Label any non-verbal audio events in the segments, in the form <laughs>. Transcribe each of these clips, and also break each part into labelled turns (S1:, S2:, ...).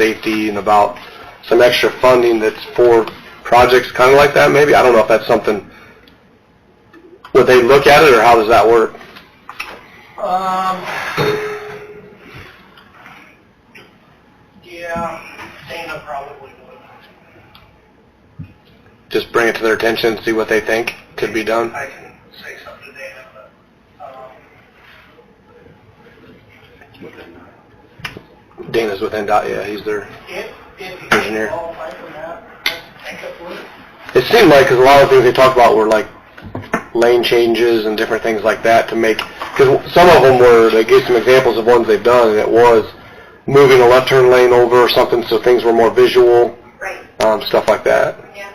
S1: safety and about some extra funding that's for projects kind of like that maybe? I don't know if that's something, would they look at it or how does that work?
S2: Um, yeah, Dana probably would.
S1: Just bring it to their attention, see what they think could be done?
S2: I can say something to Dana, but, um,
S1: Dana's with NDOT, yeah, he's there.
S2: if, if you
S1: Engineer.
S2: can qualify for that, let's take up with it.
S1: It seemed like, because a lot of things they talked about were like lane changes and different things like that to make, because some of them were, they gave some examples of ones they've done, and it was moving a left turn lane over or something, so things were more visual,
S3: Right,
S1: um, stuff like that.
S3: yeah.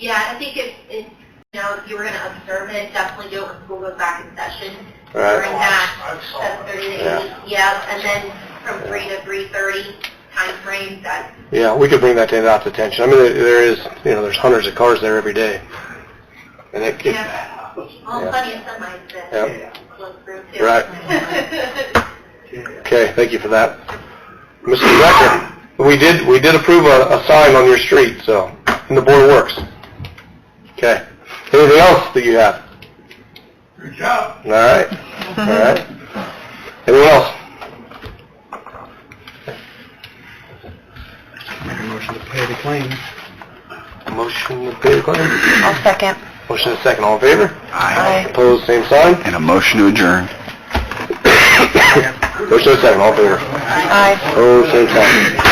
S3: Yeah, I think if, if, you know, if you were gonna observe it, definitely do it when school goes back in session.
S1: Right.
S3: During that,
S2: I've saw
S3: seven
S2: that.
S3: thirty
S1: Yeah.
S3: to eight, yeah, and then from three to three thirty timeframe, that,
S1: Yeah, we could bring that to NDOT's attention. I mean, there- there is, you know, there's hundreds of cars there every day. And it, it-
S3: yeah.
S2: <laughs>
S3: Well,
S1: Yeah.
S3: plenty of sunlight
S1: Yeah.
S3: to look through too.
S1: Right. <laughs>
S3: <laughs>
S1: okay, thank you for that. Mr. Director, we did, we did approve a, a sign on your street, so, and the board works. Okay. Anything else that you have?
S2: Good job.
S1: All right, all right. Anyone else?
S4: Make a motion to pay the claim.
S1: Motion to pay the claim?
S5: I'll second.
S1: Motion is second, all in favor?
S5: Aye.
S1: Opposed, same sign? <coughs>
S4: And a motion to adjourn.
S1: Motion is second, all in favor?
S5: Aye.
S1: Opposed, same sign.